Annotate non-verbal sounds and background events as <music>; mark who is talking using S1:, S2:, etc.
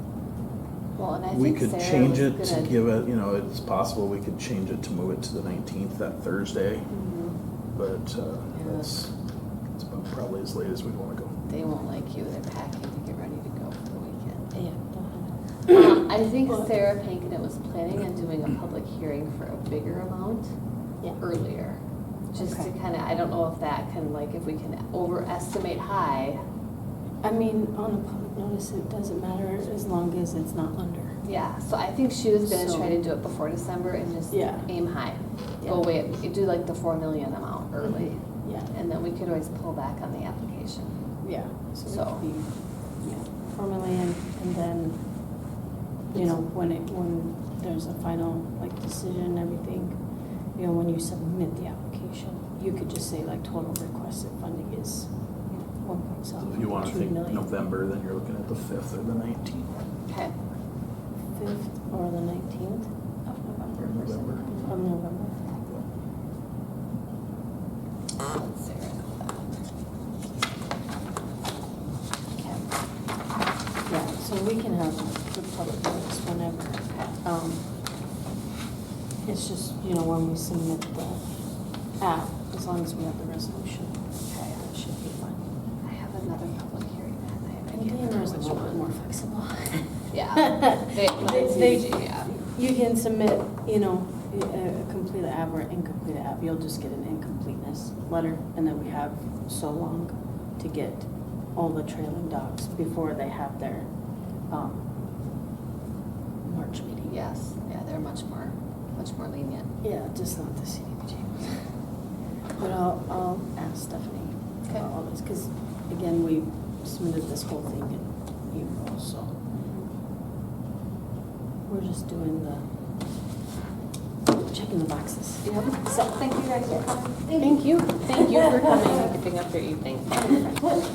S1: Well, and I
S2: We
S1: think
S2: could
S1: Sarah was
S2: change it to
S1: gonna-
S2: give it, you know, it's possible we could change it to move it to the nineteenth, that Thursday,
S1: Mhm.
S2: but uh,
S1: Yeah.
S2: that's, that's about probably as late as we'd wanna go.
S1: They won't like you, they're packing to get ready to go for the weekend.
S3: <coughs> Yeah.
S1: Um, I think Sarah Pankinet was planning on doing a public hearing for a bigger amount
S3: Yeah.
S1: earlier. Just to
S3: Okay.
S1: kind of, I don't know if that can, like, if we can overestimate high,
S3: I mean, on a public notice, it doesn't matter as long as it's not under.
S1: yeah. So I think she was gonna
S3: So-
S1: try to do it before December and just
S3: Yeah.
S1: aim high.
S3: Yeah. Mm-hmm.
S1: Go away, do like the four million amount early,
S3: Yeah,
S1: and then we could always pull back on the application.
S3: yeah. So
S1: So-
S3: it could be, yeah, formally and, and then, you know, when it, when there's a final, like, decision and everything, you know, when you submit the application, you could just say like total requested funding is one point
S2: So
S3: seven,
S2: If you wanna
S3: two
S2: think
S3: million.
S2: November, then you're looking at the fifth or the nineteenth.
S1: Okay.
S3: Fifth or the nineteenth of November.
S2: Of November.
S3: Of November.
S1: Let Sarah know that. Okay.
S3: Yeah, so we can have the public notice whenever. Um, It's just, you know, when we submit the app, as long as we have the resolution, that should be fine.
S1: I have another public hearing that night. I
S3: And
S1: can't remember
S3: DNR's a
S1: which
S3: little bit
S1: one.
S3: more flexible.
S1: <laughs>
S3: <laughs>
S1: Yeah. They- mine's
S3: They-
S1: CBG, yeah.
S3: You can submit, you know, a a complete app or incomplete app, you'll just get an incompleteness letter, and then we have so long to get all the trailing docs before they have their um, March meeting.
S1: Yes, yeah, they're much more, much more lenient.
S3: Yeah, just not the CDBG. But I'll, I'll ask Stephanie
S1: Okay.
S3: about all this, because again, we submitted this whole thing in April, so we're just doing the, checking the boxes.
S1: So, thank you guys for coming.
S3: Thank you.
S1: <laughs> Thank you for coming and keeping up your evening.